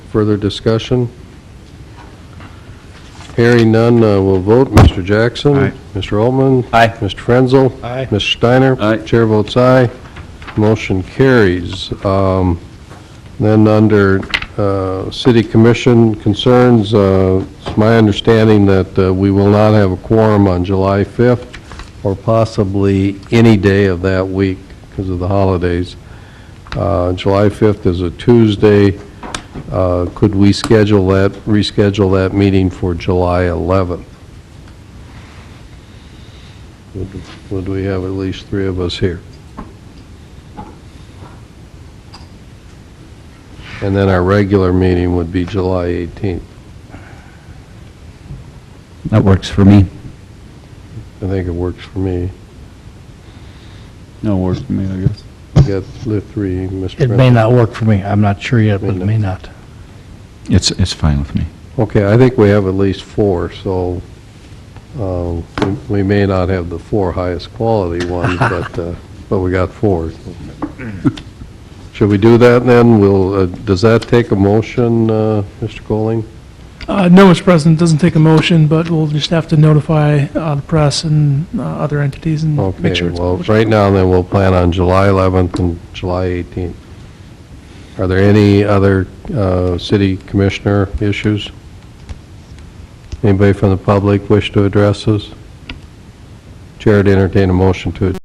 Further discussion? Hearing none, uh, we'll vote. Mr. Jackson? Aye. Mr. Altman? Aye. Mr. Frenzel? Aye. Ms. Steiner? Aye. Chair votes aye. Motion carries. Um, Then under uh, City Commission concerns, uh, it's my understanding that uh, we will not have a quorum on July 5th or possibly any day of that week because of the holidays. Uh, July 5th is a Tuesday. Uh, Could we schedule that, reschedule that meeting for July 11th? Would- Would we have at least three of us here? And then our regular meeting would be July 18th. That works for me. I think it works for me. No, works for me, I guess. You got the three, Mr. It may not work for me. I'm not sure yet, but it may not. It's, it's fine with me. Okay, I think we have at least four, so uh, we- we may not have the four highest quality ones, but, uh, but we got four. Should we do that then? Will, uh, does that take a motion, uh, Mr. Colling? Uh, No, Mr. President, doesn't take a motion, but we'll just have to notify uh, the press and uh, other entities and make Okay, sure it's well, published. right now then, we'll plan on July 11th and July 18th. Are there any other uh, city commissioner issues? Anybody from the public wish to address us? Chair to entertain a motion to